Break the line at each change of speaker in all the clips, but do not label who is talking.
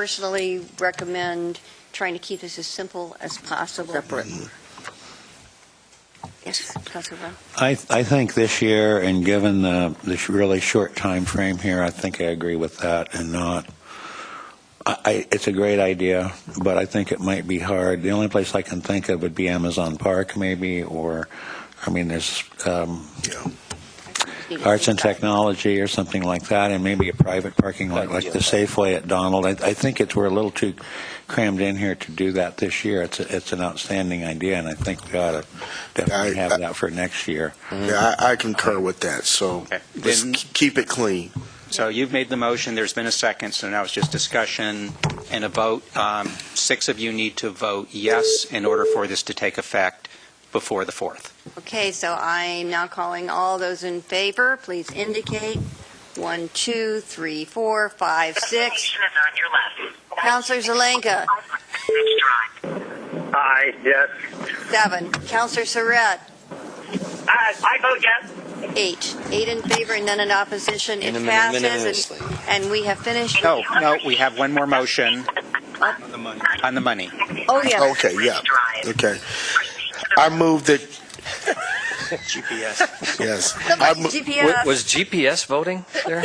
personally recommend trying to keep this as simple as possible. Separate. Yes, Councilor Brown?
I, I think this year, and given the, this really short time frame here, I think I agree with that and not. I, I, it's a great idea, but I think it might be hard. The only place I can think of would be Amazon Park, maybe, or, I mean, there's um, arts and technology or something like that, and maybe a private parking lot like the Safeway at Donald. I, I think it's we're a little too crammed in here to do that this year. It's a, it's an outstanding idea, and I think we ought to definitely
I-
have
I-
that for next year.
Yeah, I, I concur with that, so
Okay.
let's
Then-
k- keep it clean.
So you've made the motion, there's been a second, so now it's just discussion and a vote. Um, Six of you need to vote yes in order for this to take effect before the 4th.
Okay, so I'm now calling all those in favor, please indicate. One, two, three, four, five, six.
Station is on your left.
Counselor
Next
Zelenka,
drive.
Aye, yes.
seven. Counselor Surratt,
I, I vote yes.
eight. Eight in favor and none in opposition. It
Minimi-
passes,
minimally.
and- and we have finished.
No, no, we have one more motion. On the money. On the money.
Oh, yeah.
Okay, yeah,
Drive.
okay. I move that,
GPS.
yes. I
Somebody
mo-
GPS.
Was GPS voting there?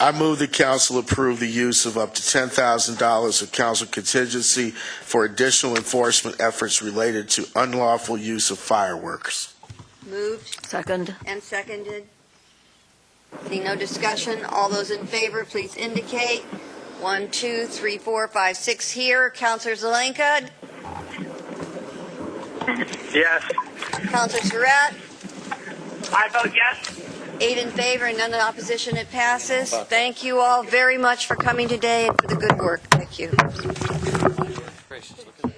I move the council approve the use of up to $10,000 of council contingency for additional enforcement efforts related to unlawful use of fireworks.
Moved
Second.
and seconded. Seeing no discussion, all those in favor, please indicate. One, two, three, four, five, six here. Counselor Zelenka,
Yes.
Counselor Surratt,
I vote yes.
eight in favor and none in opposition, it passes. Thank you all very much for coming today and for the good work. Thank you.
Gracious, look at that.